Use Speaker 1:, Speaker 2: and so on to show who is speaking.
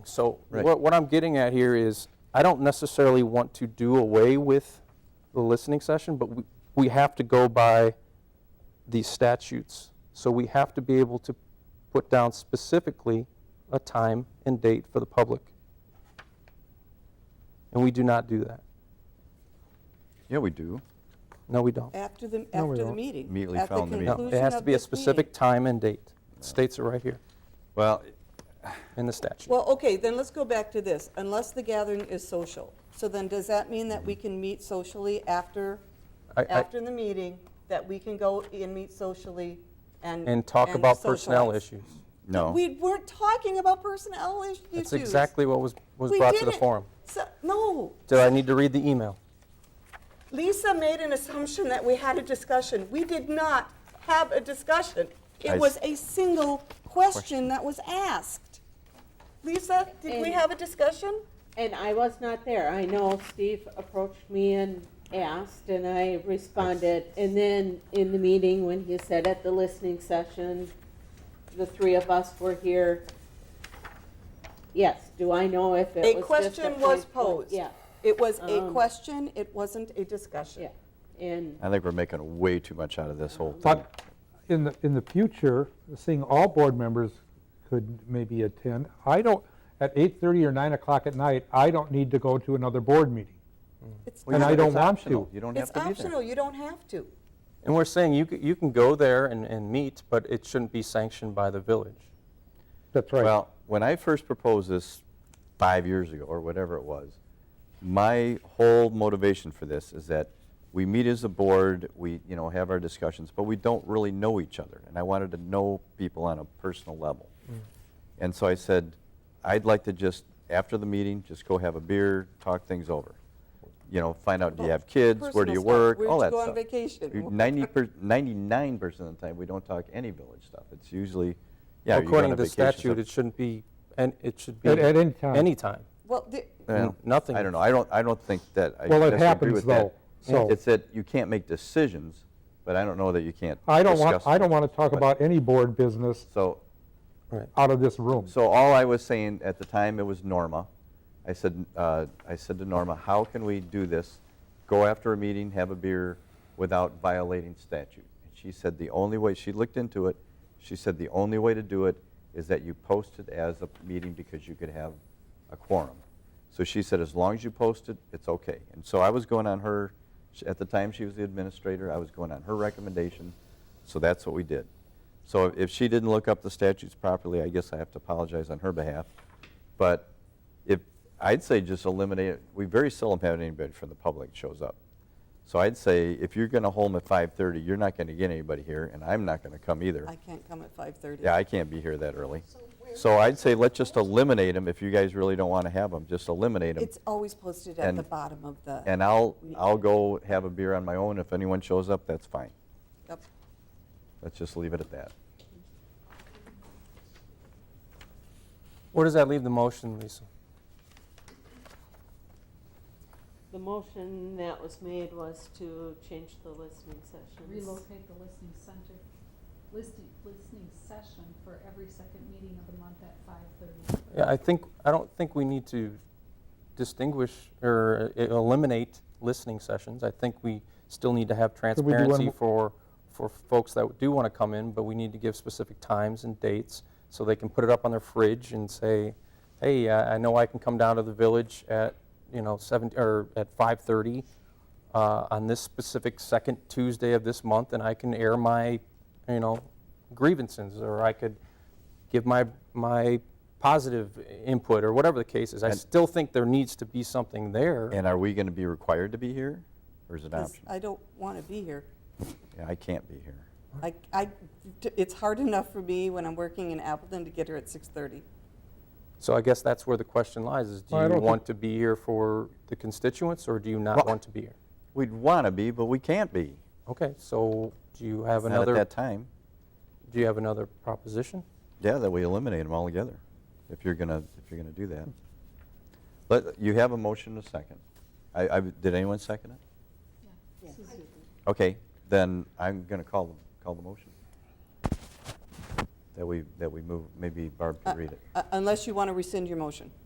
Speaker 1: So
Speaker 2: Right.
Speaker 1: what, what I'm getting at here is, I don't necessarily want to do away with the listening session, but we, we have to go by these statutes. So we have to be able to put down specifically a time and date for the public. And we do not do that.
Speaker 2: Yeah, we do.
Speaker 1: No, we don't.
Speaker 3: After the,
Speaker 4: No, we
Speaker 3: after the
Speaker 4: don't.
Speaker 3: meeting.
Speaker 2: Immediately
Speaker 3: at the
Speaker 2: following the meeting.
Speaker 1: No,
Speaker 3: conclusion
Speaker 1: it has to
Speaker 3: of
Speaker 1: be a
Speaker 3: this meeting.
Speaker 1: specific time and date. It States it right here
Speaker 2: Well,
Speaker 1: in the statute.
Speaker 3: Well, okay, then let's go back to this, unless the gathering is social. So then does that mean that we can meet socially after,
Speaker 1: I- I-
Speaker 3: after the meeting? That we can go and meet socially and?
Speaker 1: And talk about personnel
Speaker 3: socialize?
Speaker 1: issues.
Speaker 2: no.
Speaker 3: We weren't talking about personnel issues.
Speaker 1: That's exactly what was, was
Speaker 3: We
Speaker 1: brought to the
Speaker 3: didn't-
Speaker 1: forum.
Speaker 3: So- No,
Speaker 1: Did I need to read the email?
Speaker 3: Lisa made an assumption that we had a discussion. We did not have a discussion.
Speaker 2: I
Speaker 3: It
Speaker 2: s-
Speaker 3: was a single question that was asked. Lisa, did we
Speaker 5: And-
Speaker 3: have a discussion?
Speaker 5: And I was not there. I know Steve approached me and asked, and I responded. And then in the meeting, when he said at the listening session, the three of us were here. Yes, do I know if it was
Speaker 3: A
Speaker 5: just
Speaker 3: question was
Speaker 5: point-
Speaker 3: posed.
Speaker 5: Yeah,
Speaker 3: It was a
Speaker 5: Um,
Speaker 3: question, it wasn't a discussion.
Speaker 5: yeah. And
Speaker 2: I think we're making way too much out of this whole thing.
Speaker 4: But in the, in the future, seeing all board members could maybe attend, I don't, at 8:30 or 9 o'clock at night, I don't need to go to another board meeting.
Speaker 3: It's
Speaker 4: And I
Speaker 2: It's
Speaker 4: don't want
Speaker 2: optional.
Speaker 4: to.
Speaker 2: You don't have
Speaker 3: it's
Speaker 2: to be
Speaker 3: optional,
Speaker 2: there.
Speaker 3: you don't have to.
Speaker 1: And we're saying you, c- you can go there and, and meet, but it shouldn't be sanctioned by the village.
Speaker 4: That's right.
Speaker 2: Well, when I first proposed this five years ago, or whatever it was, my whole motivation for this is that we meet as a board, we, you know, have our discussions, but we don't really know each other. And I wanted to know people on a personal level.
Speaker 3: Mm.
Speaker 2: And so I said, I'd like to just, after the meeting, just go have a beer, talk things over. You know, find out, do you have kids, where do
Speaker 3: Oh, Personal
Speaker 2: you
Speaker 3: stuff.
Speaker 2: work,
Speaker 3: Where'd
Speaker 2: all
Speaker 3: you
Speaker 2: that
Speaker 3: go on
Speaker 2: stuff.
Speaker 3: vacation?
Speaker 2: 90 per, 99% of the time, we don't talk any village stuff. It's usually, yeah, you go on
Speaker 1: According
Speaker 2: a
Speaker 1: to the
Speaker 2: vacation,
Speaker 1: statute,
Speaker 2: stuff.
Speaker 1: it shouldn't be, and it should be.
Speaker 4: At- at any time.
Speaker 1: Anytime.
Speaker 3: Well, the-
Speaker 2: Well,
Speaker 1: N- nothing.
Speaker 2: I don't know. I don't, I don't think that. I
Speaker 4: Well, it
Speaker 2: necessarily agree
Speaker 4: happens,
Speaker 2: with that.
Speaker 4: though, so-
Speaker 2: It's that you can't make decisions, but I don't know that you can't.
Speaker 4: I don't want,
Speaker 2: discuss
Speaker 4: I don't
Speaker 2: them.
Speaker 4: want to talk
Speaker 2: But-
Speaker 4: about any board business
Speaker 2: So,
Speaker 4: out of this room.
Speaker 2: so all I was saying at the time, it was Norma. I said, uh, I said to Norma, how can we do this? Go after a meeting, have a beer without violating statute. And she said the only way, she looked into it, she said the only way to do it is that you post it as a meeting because you could have a quorum. So she said, as long as you post it, it's okay. And so I was going on her, sh- at the time she was the administrator, I was going on her recommendation, so that's what we did. So if- if she didn't look up the statutes properly, I guess I have to apologize on her behalf. But if, I'd say just eliminate, it. we very seldom have anybody from the public shows up. So I'd say, if you're going to hold them at 5:30, you're not going to get anybody here, and I'm not going to come either.
Speaker 3: I can't come at 5:30.
Speaker 2: Yeah, I can't be here that early. So I'd say let's just eliminate them. If you guys really don't want to have them, just eliminate them.
Speaker 3: It's always posted at the
Speaker 2: And-
Speaker 3: bottom of the,
Speaker 2: And I'll, I'll go have a beer on my own. If anyone shows up, that's fine.
Speaker 3: Yep.
Speaker 2: Let's just leave it at that.
Speaker 1: Where does that leave the motion, Lisa?
Speaker 5: the motion that was made was to change the listening sessions.
Speaker 6: relocate the listening center, listening, listening session for every second meeting of the month at five thirty.
Speaker 1: Yeah, I think, I don't think we need to distinguish or uh, eliminate listening sessions. I think we still need to have
Speaker 4: Could we do one
Speaker 1: transparency
Speaker 4: mo-
Speaker 1: for, for folks that do want to come in, but we need to give specific times and dates so they can put it up on their fridge and say, hey, I I know I can come down to the village at, you know, seven, or at 5:30 uh, on this specific second Tuesday of this month, and I can air my, you know, grievances, or I could give my, my positive input, or whatever the case is. I
Speaker 2: And-
Speaker 1: still think there needs to be something there.
Speaker 2: And are we going to be required to be here, or is it
Speaker 3: 'cause
Speaker 2: optional?
Speaker 3: I don't want to be here.
Speaker 2: Yeah, I can't be here.
Speaker 3: I, I, it's hard enough for me when I'm working in Appleton to get here at 6:30.
Speaker 1: So I guess that's where the question lies, is do
Speaker 4: Well, I
Speaker 1: you
Speaker 4: don't
Speaker 1: want to be here for the constituents, or do you not
Speaker 2: Well-
Speaker 1: want to be here?
Speaker 2: We'd want to be, but we can't be.
Speaker 1: Okay, so do you have
Speaker 2: Not at
Speaker 1: another,
Speaker 2: that time.
Speaker 1: do you have another proposition?
Speaker 2: Yeah, that we eliminate them altogether, if you're going to, if you're going to do that. But you have a motion and a second. I, I, did anyone second it?
Speaker 6: Yeah, Suzuki.
Speaker 2: Okay, then I'm going to call, the- call the motion. that we, that we move, maybe Barb can read it.
Speaker 3: Uh, Unless you want to rescind your motion.